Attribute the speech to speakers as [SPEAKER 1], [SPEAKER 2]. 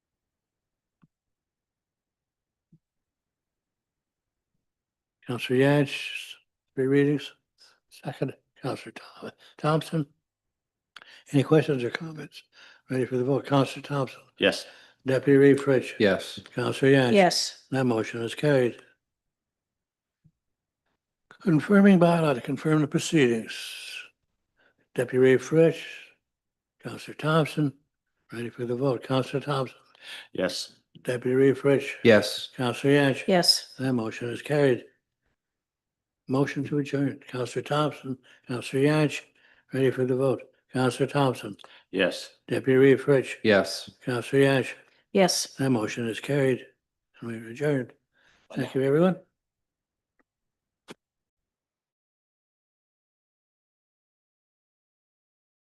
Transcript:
[SPEAKER 1] Counselor Yance, three readings. Second, Counselor Thom- Thompson. Any questions or comments? Ready for the vote? Counselor Thompson,
[SPEAKER 2] Yes.
[SPEAKER 1] Deputy Reed Fritz.
[SPEAKER 3] Yes.
[SPEAKER 1] Counselor Yance.
[SPEAKER 4] Yes,
[SPEAKER 1] That motion is carried. Confirming bylaw to confirm the proceedings. Deputy Ray Fritz, Counselor Thompson, ready for the vote. Counselor Thompson,
[SPEAKER 2] Yes.
[SPEAKER 1] Deputy Ray Fritz,
[SPEAKER 3] Yes.
[SPEAKER 1] Counselor Yance.
[SPEAKER 4] yes,
[SPEAKER 1] That motion is carried. Motion to adjourn. Counselor Thompson, Counselor Yance, ready for the vote. Counselor Thompson,
[SPEAKER 2] Yes.
[SPEAKER 1] Deputy Ray Fritz,
[SPEAKER 3] Yes.
[SPEAKER 1] Counselor Yance.
[SPEAKER 4] yes.
[SPEAKER 1] That motion is carried and we are adjourned. Thank you, everyone.